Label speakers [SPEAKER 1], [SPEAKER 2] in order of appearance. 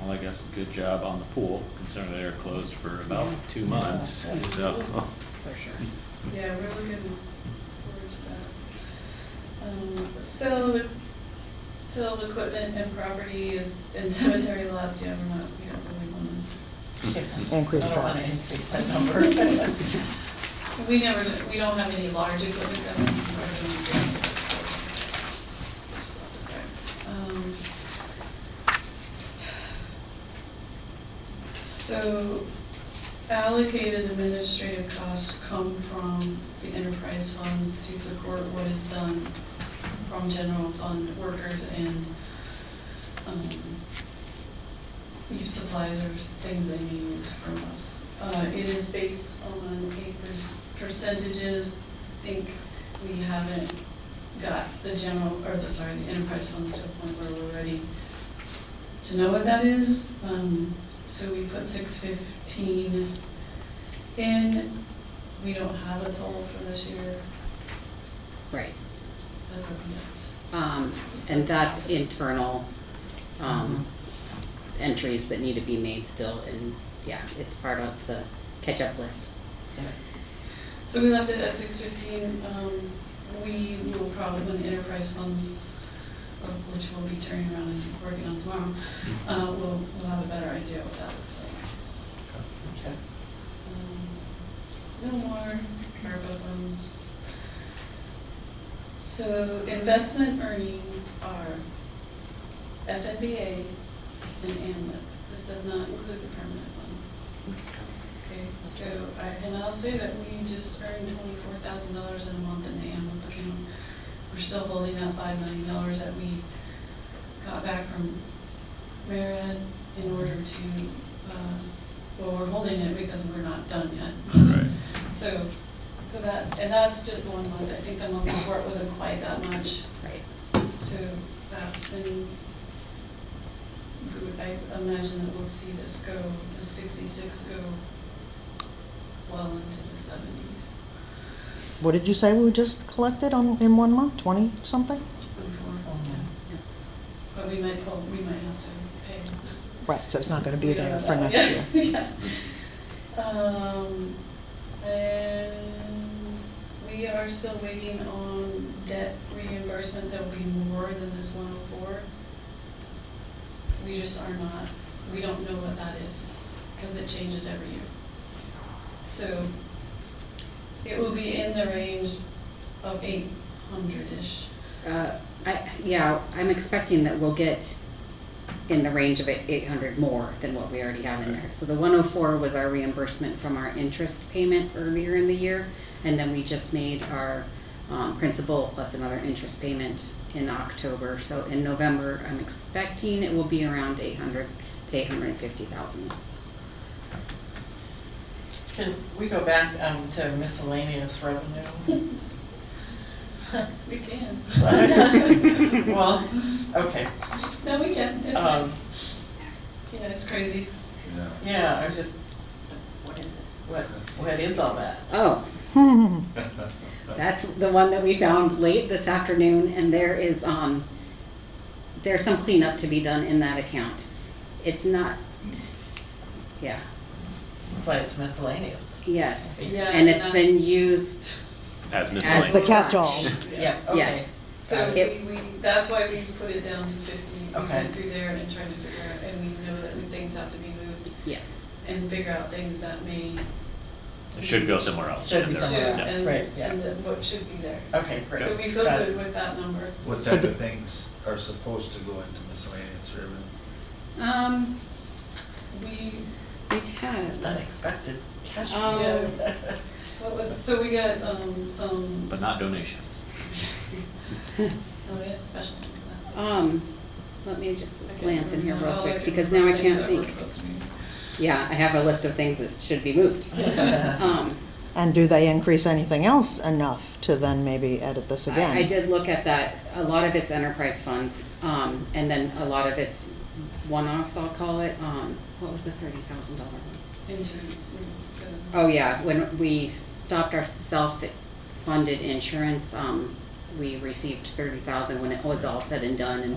[SPEAKER 1] Well, I guess good job on the pool, considering they were closed for about two months, so.
[SPEAKER 2] for sure.
[SPEAKER 3] Yeah, we're looking forward to that. Um, So, till equipment and property is, and cemetery lots, yeah, we're not, we don't really wanna,
[SPEAKER 2] I
[SPEAKER 4] Increase
[SPEAKER 2] don't wanna
[SPEAKER 4] that.
[SPEAKER 2] increase that number.
[SPEAKER 3] we never, we don't have any large equipment that we're already doing. Just left it there. Um, So, allocated administrative costs come from the enterprise funds to support what is done from general fund workers and, um, use supplies or things they may use from us. Uh, it is based on acres, percentages, I think we haven't got the general, or the, sorry, the enterprise funds to a point where we're ready to know what that is. Um, so we put six fifteen in, we don't have a total for this year,
[SPEAKER 5] Right,
[SPEAKER 3] as of yet.
[SPEAKER 5] um, and that's internal, um, entries that need to be made still, and, yeah, it's part of the catch-up list.
[SPEAKER 3] So we left it at six fifteen, um, we will probably, when the enterprise funds, uh, which we'll be turning around and working on tomorrow, uh, we'll, we'll have a better idea what that looks like.
[SPEAKER 2] Okay.
[SPEAKER 3] Um, No more ARPA funds. So investment earnings are FNBA and AMLIP. E. This does not include the permanent one. Okay, so, I and I'll say that we just earned twenty-four thousand dollars in a month in the AMLIP account. We're still holding that five million dollars that we got back from Marriott in order to, uh, well, we're holding it because we're not done yet.
[SPEAKER 1] Right.
[SPEAKER 3] So, so that, and that's just one month, I think the month before it wasn't quite that much,
[SPEAKER 5] Right.
[SPEAKER 3] so that's been good, I imagine that we'll see this go, the sixty-six go well into the seventies,
[SPEAKER 4] What did you say we just collected on, in one month, twenty something?
[SPEAKER 3] before,
[SPEAKER 5] Oh,
[SPEAKER 4] Oh,
[SPEAKER 5] yeah.
[SPEAKER 3] yeah. But we might pull, we might have to pay
[SPEAKER 4] Right, so it's not gonna be
[SPEAKER 3] We don't
[SPEAKER 4] there
[SPEAKER 3] know
[SPEAKER 4] for
[SPEAKER 3] that.
[SPEAKER 4] next year.
[SPEAKER 3] Yeah. Um, and we are still waiting on debt reimbursement, there'll be more than this one oh four. We just are not, we don't know what that is, cause it changes every year. So, it will be in the range of eight hundred-ish.
[SPEAKER 5] Uh, I, yeah, I'm expecting that we'll get in the range of eight hundred more than what we already have in there. So the one oh four was our reimbursement from our interest payment earlier in the year, and then we just made our, um, principal plus another interest payment in October. So in November, I'm expecting it will be around eight hundred to eight hundred and fifty thousand.
[SPEAKER 2] Can we go back, um, to miscellaneous revenue?
[SPEAKER 3] We can.
[SPEAKER 2] Well, okay,
[SPEAKER 3] No, we can, it's fine.
[SPEAKER 2] um,
[SPEAKER 3] Yeah, it's crazy.
[SPEAKER 1] Yeah.
[SPEAKER 2] yeah, I was just, what is it? What, what is all that?
[SPEAKER 5] Oh, That's the one that we found late this afternoon, and there is, um, there's some cleanup to be done in that account. It's not, yeah,
[SPEAKER 2] That's why it's miscellaneous.
[SPEAKER 5] yes,
[SPEAKER 3] Yeah,
[SPEAKER 5] and it's
[SPEAKER 3] that's-
[SPEAKER 5] been used,
[SPEAKER 1] As
[SPEAKER 4] As the
[SPEAKER 1] miscellaneous.
[SPEAKER 4] catch-all.
[SPEAKER 2] Yeah, okay.
[SPEAKER 5] yes.
[SPEAKER 3] So we,
[SPEAKER 5] It-
[SPEAKER 3] we, that's why we put it down to fifty. We
[SPEAKER 2] Okay.
[SPEAKER 3] went through there and tried to figure out, and we know that things have to be moved
[SPEAKER 5] Yeah,
[SPEAKER 3] and figure out things that may.
[SPEAKER 1] It should go somewhere else.
[SPEAKER 2] Should
[SPEAKER 1] and
[SPEAKER 2] be
[SPEAKER 1] there
[SPEAKER 2] somewhere
[SPEAKER 1] wasn't.
[SPEAKER 2] else.
[SPEAKER 3] Should,
[SPEAKER 2] right,
[SPEAKER 3] and,
[SPEAKER 2] yeah.
[SPEAKER 3] and that what should be there.
[SPEAKER 2] Okay, great.
[SPEAKER 3] So we feel
[SPEAKER 2] Got
[SPEAKER 3] good
[SPEAKER 2] it.
[SPEAKER 3] with that number.
[SPEAKER 6] What
[SPEAKER 4] So
[SPEAKER 6] type
[SPEAKER 4] the-
[SPEAKER 6] of things are supposed to go into miscellaneous revenue?
[SPEAKER 5] um,
[SPEAKER 3] We,
[SPEAKER 5] we had,
[SPEAKER 2] Unexpected cash
[SPEAKER 5] Um,
[SPEAKER 2] flow.
[SPEAKER 3] what was, so we got, um, some,
[SPEAKER 1] But not donations.
[SPEAKER 3] oh, yeah, special.
[SPEAKER 5] um, let me just
[SPEAKER 3] I can't
[SPEAKER 5] glance in here
[SPEAKER 3] remember.
[SPEAKER 5] real
[SPEAKER 3] All
[SPEAKER 5] quick,
[SPEAKER 3] can
[SPEAKER 5] because now
[SPEAKER 3] remember
[SPEAKER 5] I
[SPEAKER 3] are
[SPEAKER 5] can't
[SPEAKER 3] things that were
[SPEAKER 5] think.
[SPEAKER 3] supposed to be-
[SPEAKER 5] Yeah, I have a list of things that should be moved. Um,
[SPEAKER 4] And do they increase anything else enough to then maybe edit this
[SPEAKER 5] I-
[SPEAKER 4] again?
[SPEAKER 5] I did look at that, a lot of it's enterprise funds, um, and then a lot of it's one-offs, I'll call it, um, what was the thirty thousand dollar one?
[SPEAKER 3] Insurance, we uh, got-
[SPEAKER 5] Oh, yeah, when we stopped our self-funded insurance, um, we received thirty thousand when it was all said and done, and,